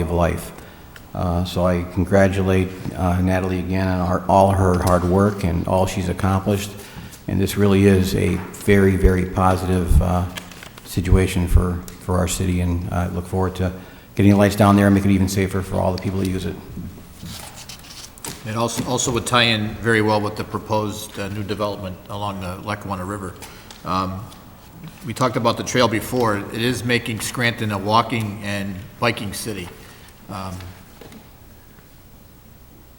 of life. Uh, So I congratulate uh, Natalie again on her- all her hard work and all she's accomplished, and this really is a very, very positive uh, situation for, for our city, and I look forward to getting the lights down there and make it even safer for all the people that use it. It also, also would tie in very well with the proposed uh, new development along the Lackawanna River. Um, We talked about the trail before, it is making Scranton a walking and biking city. Um,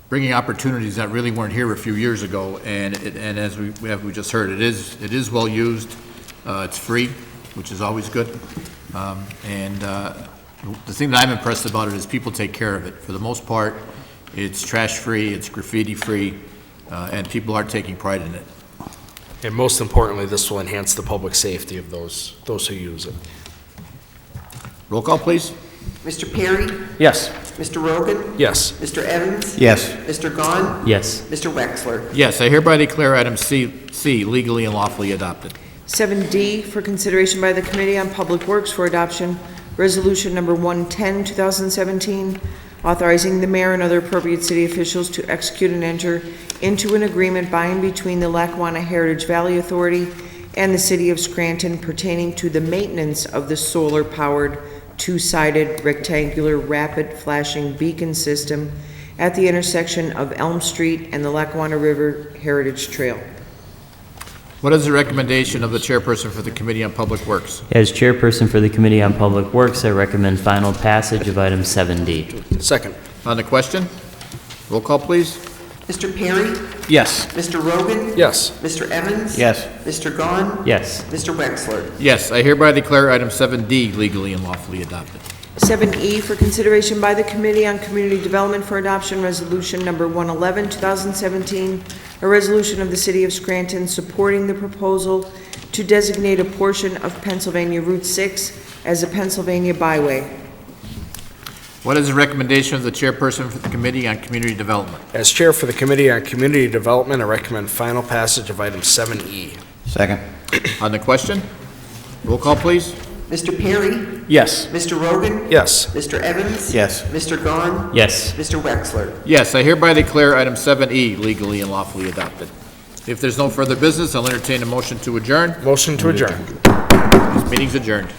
Bringing opportunities that really weren't here a few years ago, and, it- and as we, we have- we just heard, it is, it is well-used, uh, it's free, which is always good. Um, And uh, the thing that I'm impressed about it is people take care of it. For the most part, it's trash-free, it's graffiti-free, uh, and people are taking pride in it. And most importantly, this will enhance the public safety of those, those who use it. Roll call, please. Mr. Perry? Yes. Mr. Rogan? Yes. Mr. Evans? Yes. Mr. Gahn? Yes. Mr. Wexler? Yes, I hereby declare item C, C legally and lawfully adopted. 7D for consideration by the Committee on Public Works for Adoption, Resolution Number 110, 2017, authorizing the mayor and other appropriate city officials to execute and enter into an agreement by and between the Lackawanna Heritage Valley Authority and the City of Scranton pertaining to the maintenance of the solar-powered, two-sided rectangular rapid flashing beacon system at the intersection of Elm Street and the Lackawanna River Heritage Trail. What is the recommendation of the chairperson for the Committee on Public Works? As chairperson for the Committee on Public Works, I recommend final passage of item 7D. Second. On the question? Roll call, please. Mr. Perry? Yes. Mr. Rogan? Yes. Mr. Evans? Yes. Mr. Gahn? Yes. Mr. Wexler? Yes, I hereby declare item 7D legally and lawfully adopted. 7E E for consideration by the Committee on Community Development for Adoption, Resolution Number 111, 2017, a resolution of the City of Scranton supporting the proposal to designate a portion of Pennsylvania Route 6 as a Pennsylvania byway. What is the recommendation of the chairperson for the Committee on Community Development? As chair for the Committee on Community Development, I recommend final passage of item E. 7E. Second. On the question? Roll call, please. Mr. Perry? Yes. Mr. Rogan? Yes. Mr. Evans? Yes. Mr. Gahn? Yes. Mr. Wexler? Yes, I hereby declare item 7E legally and lawfully adopted. If there's no further business, I'll entertain a motion to adjourn. Motion to adjourn. Meeting's adjourned.